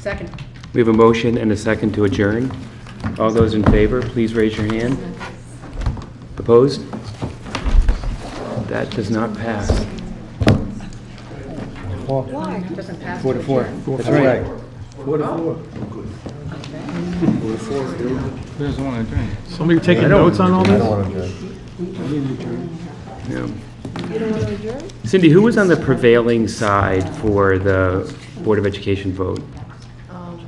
Second. We have a motion and a second to adjourn. All those in favor, please raise your hand. Opposed? That does not pass. Why? Doesn't pass. Four to four. That's right. Four to four. There's one drink. Somebody taking notes on all I this? don't want to adjourn. Yeah. Cindy, who was on the prevailing side for the Board of Education vote? Um,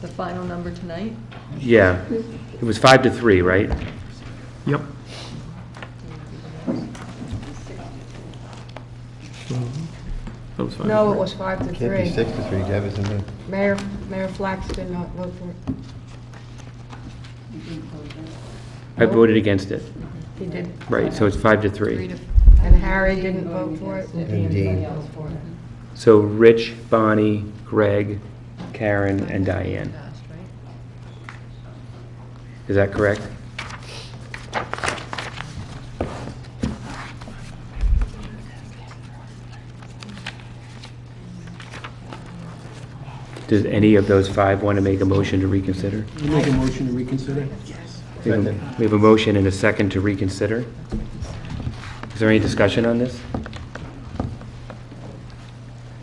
The final number tonight? Yeah, it was five to three, right? Yep. That was fine. No, it was five to Can't be three. six to three, Deb, isn't it? Mayor, Mayor Flax did not vote for it. I voted against it. He did. Right, so it's five to Three three. to, And Harry didn't vote for it. And Dean. So Rich, Bonnie, Greg, Karen, and Diane. passed, right? Is that correct? Does any of those five want to make a motion to reconsider? Make a motion to reconsider? We have a- we have a motion and a second to reconsider. Is there any discussion on this?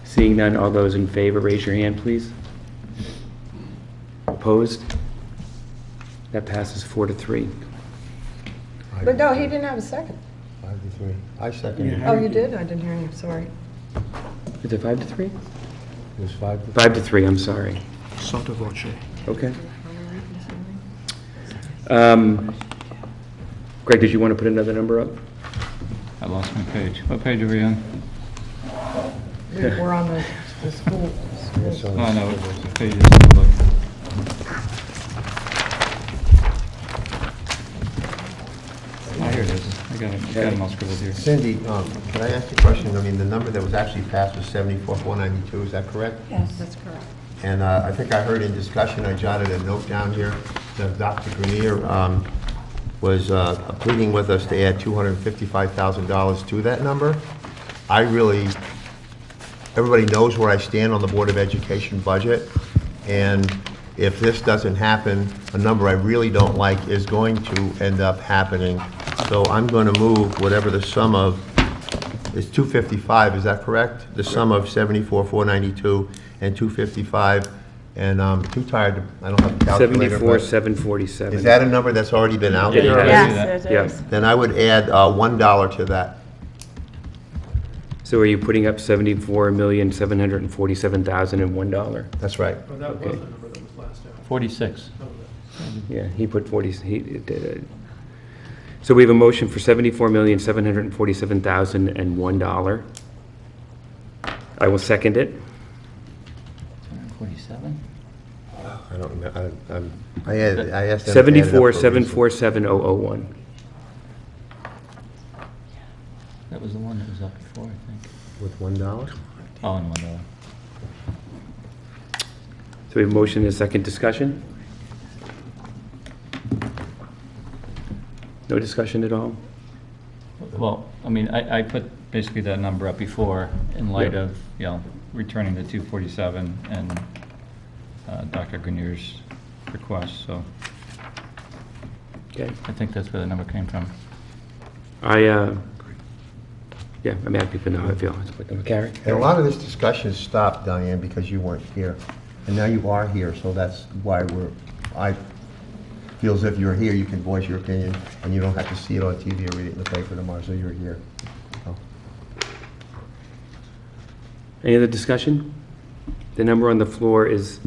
Seeing none, all those in favor, raise your hand, please. Opposed? That passes four to three. But no, he didn't have a second. Five to three. I second it. Oh, you did? I didn't hear you, sorry. Is it five to three? It was five to Five to three, I'm sorry. Sotto voce. Okay. Um, Greg, did you want to put another number up? I lost my page. What page are we on? We We're on the, the school. three. So- Oh, no, it's page is look. Oh, here it is. I got it, I got it all scribbled here. Cindy, um, can I ask you a question? I mean, the number that was actually passed was 74,492, is that correct? That's correct. And uh, I think I heard in discussion, I jotted a note down here, that Dr. Grenier um, was uh, pleading with us to add $255,000 to that number. I really, everybody knows where I stand on the Board of Education budget, and if this doesn't happen, a number I really don't like is going to end up happening. So I'm going to move whatever the sum of it's 255, is that correct? The sum of 74, 492, and 255, and I'm too tired, to- I don't have a calculator. Seventy-four, but- seven forty-seven. Is that a number that's already been out Yeah, there? yeah. Yes, Yes. Then I would add uh, $1 to that. So are you putting up seventy-four million, seven hundred and forty-seven thousand and one dollar? That's right. Oh, that was the number that was last out. Forty-six. Yeah, he put forty, he it did it. So we have a motion for seventy-four million, seven hundred and forty-seven thousand and one dollar. I will second it. Forty-seven? I don't, know, I, I'm- I had- I asked them to add it up Seventy-four, for a reason. seven, four, seven, oh, oh, one. That was the one that was up before, I think. With $1? Oh, and one dollar. So we have a motion and a second discussion? No discussion at all? Well, I mean, I, I put basically that number up before in light Yeah. of, you know, returning the 247 and uh, Dr. Grineer's request, so Okay. I think that's where the number came from. I, uh, yeah, I'm happy to know how I feel. It's like, Carrie? And a lot of this discussion stopped, Diane, because you weren't here. And now you are here, so that's why we're, I feel as if you're here, you can voice your opinion, and you don't have to see it on TV or read it in the paper tomorrow, so you're here. So, Any other discussion? The number on the floor is,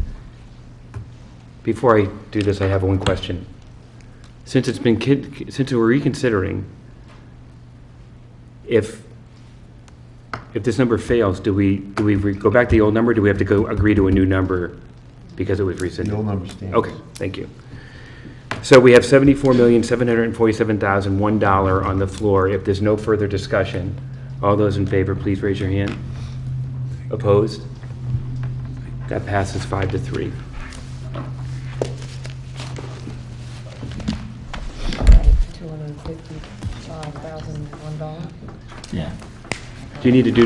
before I do this, I have one question. Since it's been, kid- since we're reconsidering, if, if this number fails, do we, do we re- go back to the old number? Do we have to go agree to a new number because it was rescinded? The old number stands. Okay, thank you. So we have seventy-four million, seven hundred and forty-seven thousand, one dollar on the floor. If there's no further discussion, all those in favor, please raise your hand. Opposed? That passes five to three. Two hundred and fifty-five thousand, one dollar. Yeah. Do you need to do